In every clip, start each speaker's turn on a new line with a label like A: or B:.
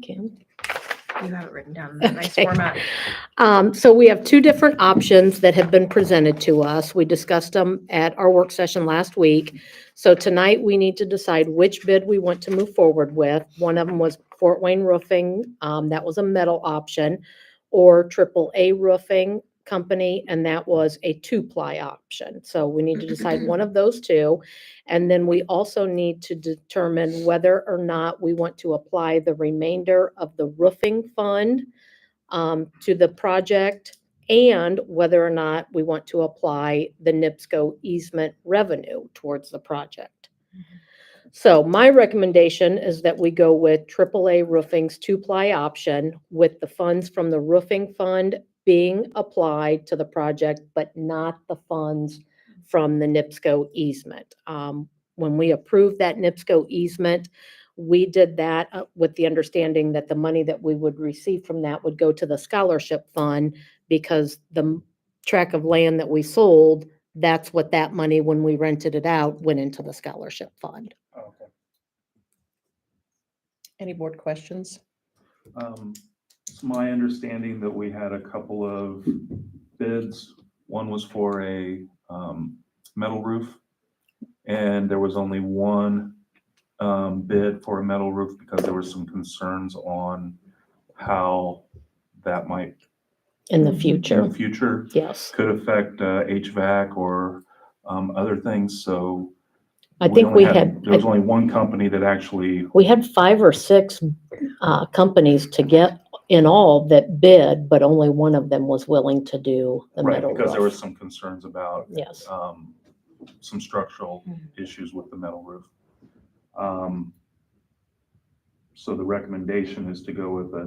A: Kim.
B: You have it written down in that nice
A: Okay.
B: format.
A: Um, So we have two different options that have been presented to us. We discussed them at our work session last week. So tonight, we need to decide which bid we want to move forward with. One of them was Fort Wayne Roofing. um, That was a metal option. Or triple A Roofing Company, and that was a two-ply option. So we need to decide one of those two. And then we also need to determine whether or not we want to apply the remainder of the roofing fund um, to the project and whether or not we want to apply the NIPSCO easement revenue towards the project. So my recommendation is that we go with AAA Roofing's two-ply option with the funds from the roofing fund being applied to the project, but not the funds from the NIPSCO easement. Um, When we approved that NIPSCO easement, we did that uh, with the understanding that the money that we would receive from that would go to the scholarship fund because the m- tract of land that we sold, that's what that money, when we rented it out, went into the scholarship fund.
C: Oh, Okay.
D: Any board questions?
C: Um, It's my understanding that we had a couple of bids. One was for a um, metal roof. And there was only one um, bid for a metal roof because there were some concerns on how that might
A: In the
D: Mhm.
C: in the
A: future,
C: future
A: Mm-hmm. yes.
C: could affect uh, HVAC or um, other things, so.
A: I think we
C: only
A: had,
C: There was only one company that actually,
A: we had five or six uh, companies to get in all that bid, but only one of them was willing to do the
C: right,
A: metal
C: because there was
A: roof.
C: some concerns about
A: Yes,
C: um, some structural
B: Hmm.
C: issues with the metal roof. Um, So the recommendation is to go with a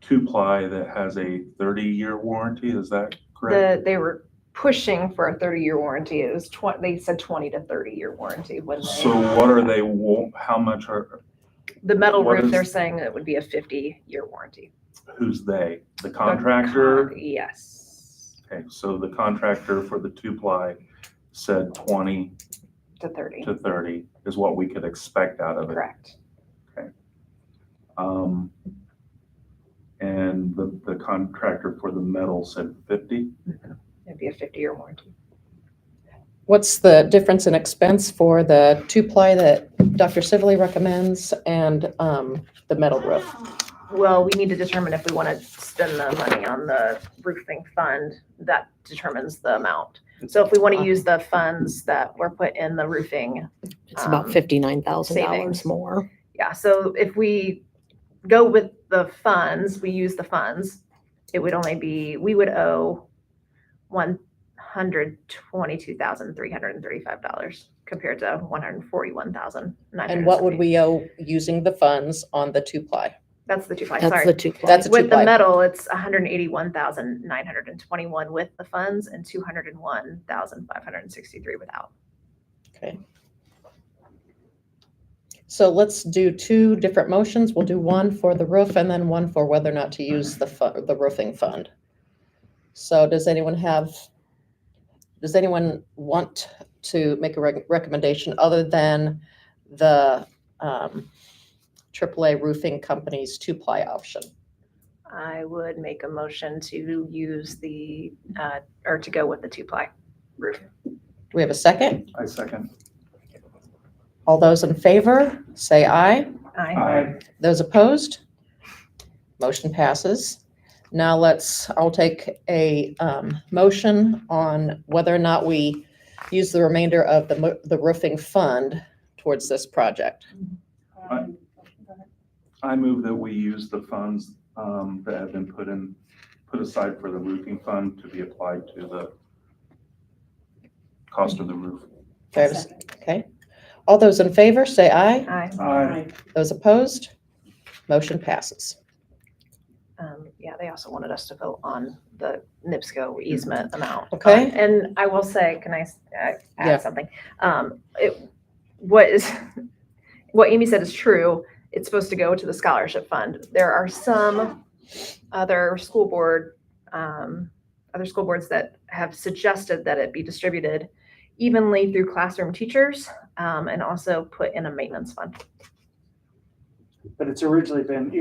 C: two-ply that has a thirty-year warranty, is that correct?
B: The, they were pushing for a thirty-year warranty. It was twen- they said twenty to thirty-year warranty when
C: So
B: they,
C: what are they, wa- how much are,
B: the metal
C: what
B: roof,
C: is-
B: they're saying it would be a fifty-year warranty.
C: who's they? The
B: The con-
C: contractor?
B: Yes,
C: Okay, so the contractor for the two-ply said twenty
B: to thirty,
C: to thirty is what we could expect out of it.
B: correct.
C: Um, And the, the contractor for the metal said fifty?
B: It'd be a fifty-year warranty.
D: What's the difference in expense for the two-ply that Dr. Sivily recommends and um, the metal roof?
B: Well, we need to determine if we want to spend the money on the roofing fund. That determines the amount. So if we want to use the funds that were put in the roofing
A: it's about
B: um,
A: fifty-nine thousand dollars
B: savings.
A: more.
B: Yeah, so if we go with the funds, we use the funds, it would only be, we would owe one hundred twenty-two thousand, three hundred and thirty-five dollars compared to one hundred and forty-one thousand, nine hundred.
D: And what would we owe using the funds on the two-ply?
B: That's the two, ply,
A: That's the
B: sorry.
A: two.
D: That's
A: ply.
D: a
B: With the
D: two-ply.
B: metal, it's hundred and eighty-one thousand, nine hundred and twenty-one with the funds and two hundred and one thousand, five hundred and sixty-three without.
D: Okay. So let's do two different motions. We'll do one for the roof and then one for whether or not to use the fu- the roofing fund. So does anyone have, does anyone want to make a rec- recommendation other than the um, AAA roofing company's two-ply option?
B: I would make a motion to use the, uh, or to go with the two-ply roof.
D: Do we have a second?
C: I second.
D: All those in favor, say aye. Those opposed? Motion passes. Now let's, I'll take a um, motion on whether or not we use the remainder of the mo- the roofing fund towards this project.
C: I move that we use the funds um, that have been put in, put aside for the roofing fund to be applied to the cost of the roof.
D: Do I have a s- Okay. All those in favor, say aye.
B: Aye.
D: Those opposed? Motion passes.
B: Um, Yeah, they also wanted us to vote on the NIPSCO easement amount.
D: Mm.
B: Um,
D: Okay.
B: And I will say, can I s- uh,
D: Yeah.
B: add something? Um, it- What is, what Amy said is true. It's supposed to go to the scholarship fund. There are some other school board, um, other school boards that have suggested that it be distributed evenly through classroom teachers um, and also put in a maintenance fund.
E: But it's originally been